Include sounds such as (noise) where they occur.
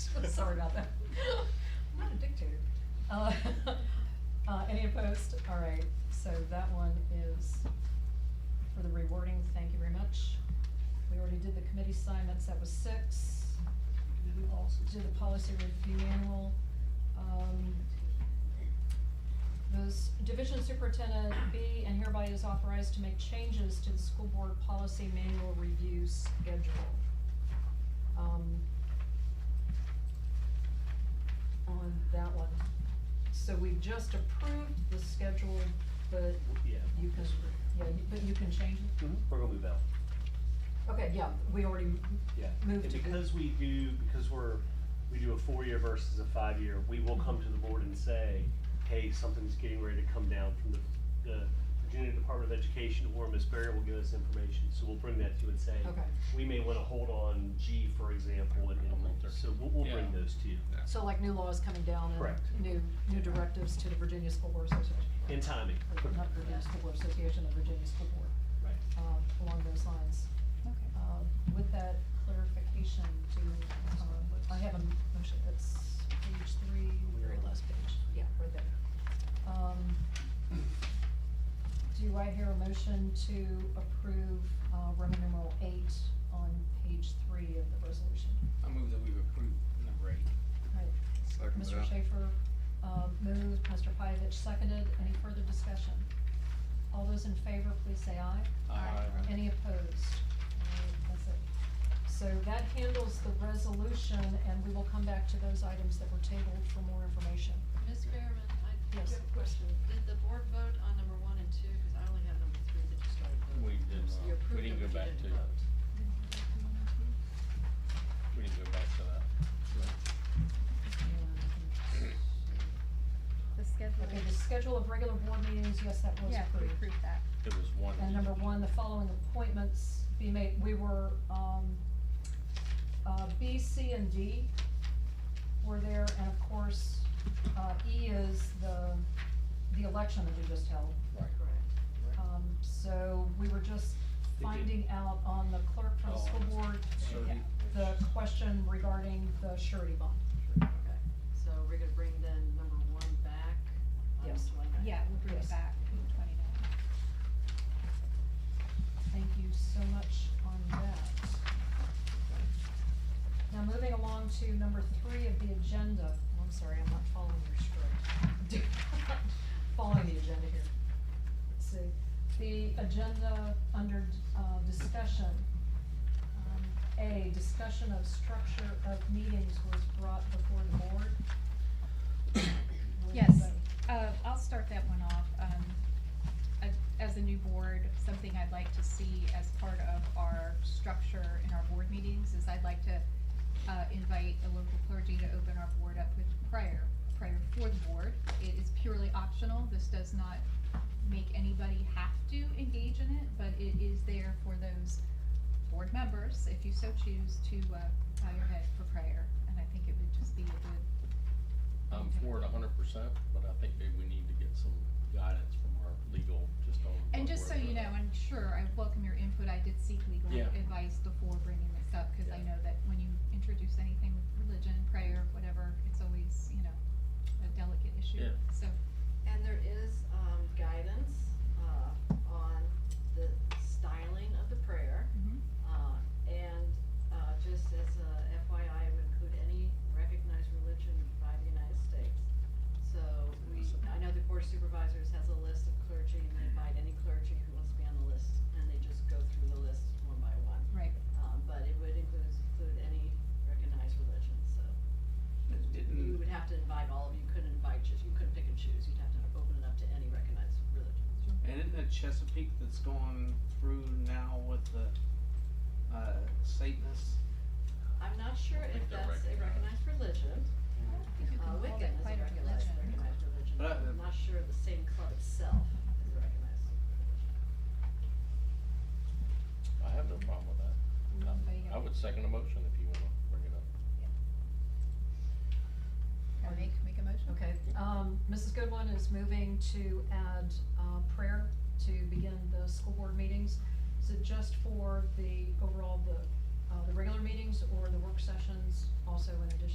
(laughs) Sorry about that. I'm not a dictator. Uh, (laughs) uh, Any opposed? All right, so that one is for the rewarding, thank you very much. We already did the committee assignments, that was six. We also did the policy review annual. Um, Those, division superintendent B, and hereby is authorized to make changes to the school board policy manual review schedule. Um, on that one. So we've just approved the schedule, but Yeah. you can, yeah, you- but you can change it? Mhm. We're gonna move out, Okay, yeah, we already, m- yeah. Move And to- because we do, because we're, we do a four-year versus a five-year, we will come to the board and say, hey, something's getting ready to come down from the, the Virginia Department of Education, or Miss Barry will give us information, so we'll bring that to you and say, okay. we may wanna hold on G, for example, and, and, so we'll, we'll bring Yeah. those to you So like new laws coming down Correct. and new, new directives to the Virginia School Board Association. in timing. Or Not Virginia School Board Association, the Virginia School Board, Right. um, along those lines. Okay. Um, With that clarification to, um, I have a motion, that's page three, very last page, yeah, right there. Um, Do I hear a motion to approve uh, Roman numeral eight on page three of the resolution? I move that we approve number eight. Right. Second Mr. that. Schaefer uh, moved, Mr. Pyavich seconded, any further discussion? All those in favor, please say aye. Aye. Aye. Any opposed? All right, That's it. So that handles the resolution, and we will come back to those items that were tabled for more information. Ms. Behrman, I do Yes. have a question. Did the board vote on number one and two? Because I only have number three that you started voting. We did not. So you We approved didn't them, go but back you to- didn't vote. We didn't go back to that. The schedule. Okay, the schedule of regular board meetings, yes, that was Yeah, we approved. approved that. It was one. And number one, the following appointments be made, we were, um, uh, B, C, and D were there, and of course, uh, E is the, the election that we just held. Right. Correct. Um, so we were just They did. finding out on the clerk from the Oh, school board, Surety. the question regarding the surety bond. Okay. So we're gonna bring then number one back on Yes. twenty-nine. Yeah, we'll bring Yes. it back in twenty-nine. Thank you so much on that. Now, moving along to number three of the agenda, Oh, I'm sorry, I'm not following your script. (laughs) Following the agenda here. Let's see, the agenda under, uh, discussion. Um, A, discussion of structure of meetings was brought before the board. (coughs) Would Yes, anybody- uh, I'll start that one off. Um, a- as a new board, something I'd like to see as part of our structure in our board meetings is I'd like to, uh, invite the local clergy to open our board up with prayer, prayer for the board. It is purely optional. This does not make anybody have to engage in it, but it is there for those board members, if you so choose, to, uh, bow your head for prayer. And I think it would just be a good I'm for it a hundred percent, but I think maybe we need to get some guidance from our legal, just on. And what just so we're you doing. know, and sure, I welcome your input, I did seek legal Yeah. advice before bringing this up, cause I Yeah. know that when you introduce anything with religion, prayer, whatever, it's always, you know, a delicate issue, Yeah. so. And there is, um, guidance, uh, on the styling of the prayer. mm-hmm. Uh, and, uh, just as a FYI, it would include any recognized religion by the United States. So we, I know the Board of Supervisors has a list of clergy, and they invite any clergy who wants to be on the list, and they just go through the list one by one. Right, Um, but it would include, include any recognized religion, so you Didn't, would have to invite all of, you couldn't invite, just, you couldn't pick and choose, you'd have to open it up to any recognized religion. And isn't it Chesapeake that's going through now with the uh, Satanists? I'm not sure I if think they're that's a recognized recognized. religion. I don't think you Uh, can call Wiccan it is a quite a recognized, religion. recognized religion, But, but I'm uh, not sure the same club itself is a recognized religion. I have no problem with that. Mm, there you Um, I- I go. would second a motion if you wanna bring it up. Can we make a motion? Okay, um, Mrs. Goodwin is moving to add, uh, prayer to begin the school board meetings. Is it just for the overall, the, uh, the regular meetings or the work sessions also in addition?